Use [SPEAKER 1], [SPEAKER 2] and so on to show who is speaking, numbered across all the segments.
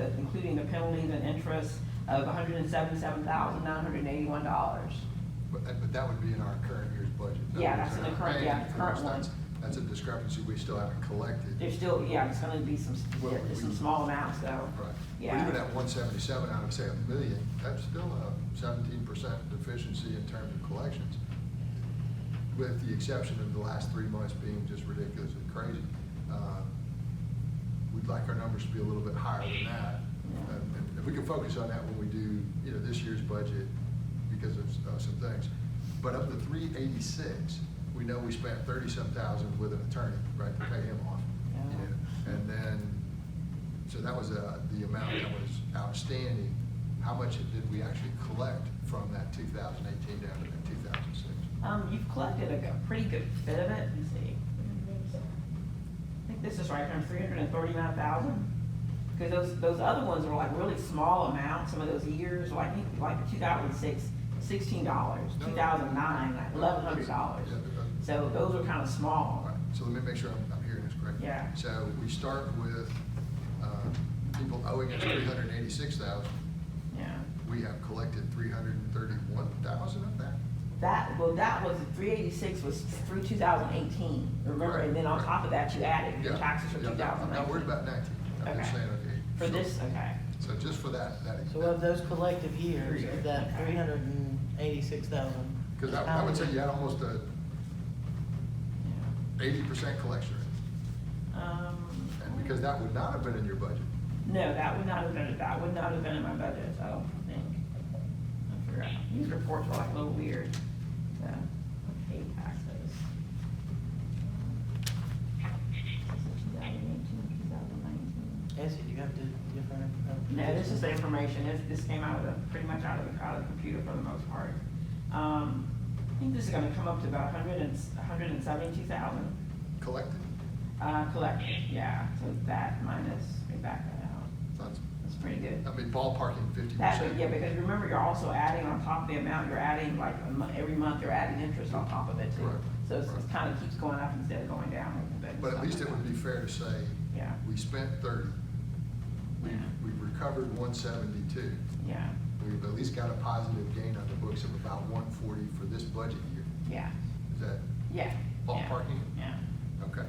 [SPEAKER 1] the penalties and interest of hundred and seventy-seven thousand, nine hundred and eighty-one dollars.
[SPEAKER 2] But, that- but that would be in our current year's budget. In other
[SPEAKER 1] Yeah,
[SPEAKER 2] words,
[SPEAKER 1] that's in
[SPEAKER 2] they're
[SPEAKER 1] the
[SPEAKER 2] not
[SPEAKER 1] current-
[SPEAKER 2] paying
[SPEAKER 1] yeah,
[SPEAKER 2] for
[SPEAKER 1] current
[SPEAKER 2] us. That's- That's a discrepancy we still haven't collected.
[SPEAKER 1] There's still, yeah, it's gonna be some,
[SPEAKER 2] Well,
[SPEAKER 1] yeah, there's some small amounts, though.
[SPEAKER 2] Right. But even
[SPEAKER 1] Yeah,
[SPEAKER 2] at one seventy-seven out of, say, a million, that's still a seventeen percent deficiency in terms of collections. With the exception of the last three months being just ridiculous and crazy. Uh, We'd like our numbers to be a little bit higher than that.
[SPEAKER 1] Yeah.
[SPEAKER 2] And- and If we can focus on that when we do, you know, this year's budget because of uh, some things. But of the three eighty-six, we know we spent thirty-some thousand with an attorney, right, to pay him off.
[SPEAKER 1] Yeah.
[SPEAKER 2] You know, and then, so that was uh, the amount that was outstanding. How much did we actually collect from that 2018 down to that 2006?
[SPEAKER 1] um, you've collected a go- pretty good bit of it, let me see. I think this is right around three hundred and thirty-nine thousand. Because those, those other ones are like really small amounts, some of those years, like, I think, like two thousand six, sixteen dollars,
[SPEAKER 2] No, no.
[SPEAKER 1] two thousand nine, like eleven hundred dollars.
[SPEAKER 2] Yeah, but, uh,
[SPEAKER 1] So those are kind of
[SPEAKER 2] All
[SPEAKER 1] small.
[SPEAKER 2] right, so let me make sure I'm, I'm hearing this correctly.
[SPEAKER 1] Yeah.
[SPEAKER 2] So we start with, um, people owing us 386,000.
[SPEAKER 1] Yeah.
[SPEAKER 2] We have collected 331,000 of that?
[SPEAKER 1] That, well, that was, three eighty-six was through two thousand eighteen, remember, and then on top of that, you added your
[SPEAKER 2] Yeah,
[SPEAKER 1] taxes from
[SPEAKER 2] yeah,
[SPEAKER 1] two
[SPEAKER 2] no,
[SPEAKER 1] thousand
[SPEAKER 2] I'm not worried about
[SPEAKER 1] nineteen.
[SPEAKER 2] 19. I'm just
[SPEAKER 1] Okay.
[SPEAKER 2] saying, okay.
[SPEAKER 1] For
[SPEAKER 2] so-
[SPEAKER 1] this, okay,
[SPEAKER 2] So just for that, that.
[SPEAKER 3] So of those collective years, of that
[SPEAKER 1] Okay.
[SPEAKER 3] three hundred and eighty-six thousand.
[SPEAKER 2] Because I, I would say you had almost a
[SPEAKER 1] yeah.
[SPEAKER 2] eighty percent collection rate,
[SPEAKER 1] Um,
[SPEAKER 2] and because that would not have been in your budget.
[SPEAKER 1] No, that would not have been, that would not have been in my budget, I don't think. I forgot, these reports are like a little weird, so, I hate taxes. 2018, 2019.
[SPEAKER 3] Essie, do you have to different? uh,
[SPEAKER 1] No, this is the information, this, this came out of the, pretty much out of the, out of the computer for the most part. Um, I think this is gonna come up to about hundred and, hundred and seventy-two thousand,
[SPEAKER 2] Collected,
[SPEAKER 1] uh, collected, yeah, so that minus, we back that out,
[SPEAKER 2] that's,
[SPEAKER 1] that's pretty good.
[SPEAKER 2] I mean, ballparking fifty
[SPEAKER 1] That, but
[SPEAKER 2] percent.
[SPEAKER 1] yeah, because remember, you're also adding on top of the amount, you're adding like, a mo- every month, you're adding interest on top of it too.
[SPEAKER 2] Correct,
[SPEAKER 1] So it's, it
[SPEAKER 2] correct.
[SPEAKER 1] kind of keeps going up instead of going down. a little bit and
[SPEAKER 2] But at
[SPEAKER 1] stuff
[SPEAKER 2] least
[SPEAKER 1] like
[SPEAKER 2] it would be fair to say,
[SPEAKER 1] that. Yeah,
[SPEAKER 2] we spent thirty, we,
[SPEAKER 1] Yeah.
[SPEAKER 2] we recovered one seventy-two.
[SPEAKER 1] yeah,
[SPEAKER 2] We've at least got a positive gain on the books of about one forty for this budget year.
[SPEAKER 1] yeah,
[SPEAKER 2] Is that
[SPEAKER 1] yeah. yeah,
[SPEAKER 2] ballparking?
[SPEAKER 1] Yeah,
[SPEAKER 2] Okay.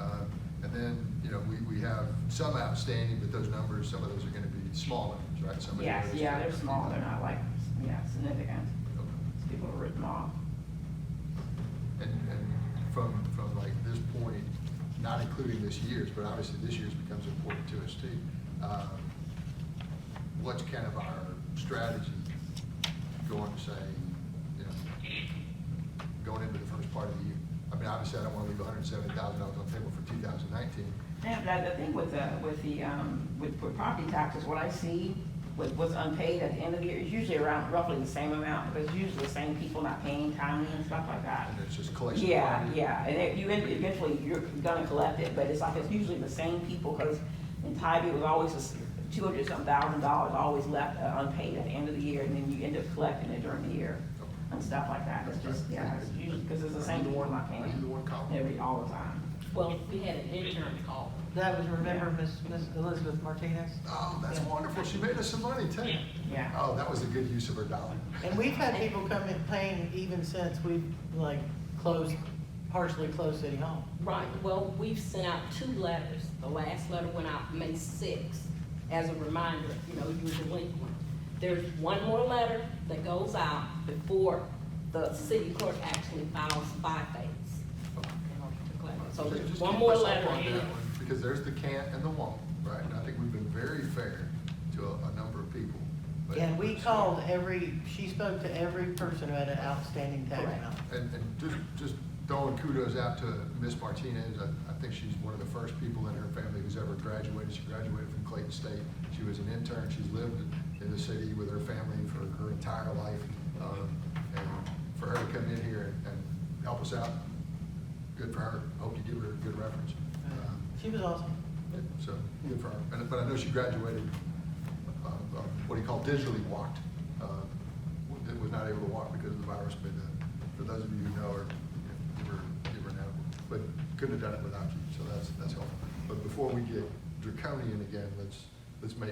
[SPEAKER 2] Uh, And then, you know, we, we have some outstanding, but those numbers, some of those are gonna be smaller, right? Some of the
[SPEAKER 1] yes,
[SPEAKER 2] others-
[SPEAKER 1] yeah, they're small, they're not like, yeah, significant,
[SPEAKER 2] Okay.
[SPEAKER 1] These people are written off.
[SPEAKER 2] And, and from, from like this point, not including this year's, but obviously this year's becomes important to us too. um, What's kind of our strategy going, say, you know, going into the first part of the year? I mean, obviously, I don't want to leave hundred and seventy thousand dollars on the table for two thousand nineteen.
[SPEAKER 1] Yeah, but the thing with the, with the, um, with, with property taxes, what I see with what's unpaid at the end of the year is usually around roughly the same amount, because usually the same people not paying timely and stuff like that.
[SPEAKER 2] And it's just collection.
[SPEAKER 1] Yeah, yeah, and it, you, end- eventually, you're gonna collect it, but it's like, it's usually the same people, because in Tybee, it was always two hundred some thousand dollars always left uh, unpaid at the end of the year, and then you end up collecting it during the year, and stuff like that, it's just, yeah, it's usually, because it's the same people not
[SPEAKER 2] Are you the
[SPEAKER 1] paying
[SPEAKER 2] one calling?
[SPEAKER 1] every, all the time.
[SPEAKER 4] Well, we had an intern call.
[SPEAKER 3] That was, remember, Miss, Miss Elizabeth Martinez?
[SPEAKER 2] Oh, that's wonderful. She made us some money too.
[SPEAKER 1] Yeah,
[SPEAKER 2] Oh, that was a good use of her dollar.
[SPEAKER 3] And we've had people come in paying even since we've, like, closed, partially closed City Hall.
[SPEAKER 4] Right, well, we've sent out two letters. The last letter went out May sixth as a reminder, you know, you were delinquent. There's one more letter that goes out before the city clerk actually files by dates. So
[SPEAKER 2] Just-
[SPEAKER 4] there's
[SPEAKER 2] just
[SPEAKER 4] one
[SPEAKER 2] keep
[SPEAKER 4] more
[SPEAKER 2] us up
[SPEAKER 4] letter.
[SPEAKER 2] on that
[SPEAKER 4] and-
[SPEAKER 2] one, Because there's the can't and the won't, right? And I think we've been very fair to a, a number of people. but-
[SPEAKER 3] And we called every, she spoke to every person who had an outstanding tax
[SPEAKER 4] Correct.
[SPEAKER 3] amount.
[SPEAKER 2] And, and just, just throwing kudos out to Miss Martinez. I, I think she's one of the first people in her family who's ever graduated. She graduated from Clayton State. She was an intern. She's lived in the city with her family for her entire life. Um, And for her to come in here and and help us out, good for her. Hope you give her a good reference. Um,
[SPEAKER 3] She was awesome.
[SPEAKER 2] So, good for her. And- But I know she graduated, uh, uh, what do you call, digitally walked. uh, w- Was not able to walk because of the virus, but uh, for those of you who know her, you were, you were an animal. But couldn't have done it without you, so that's, that's helpful. But before we get draconian again, let's, let's make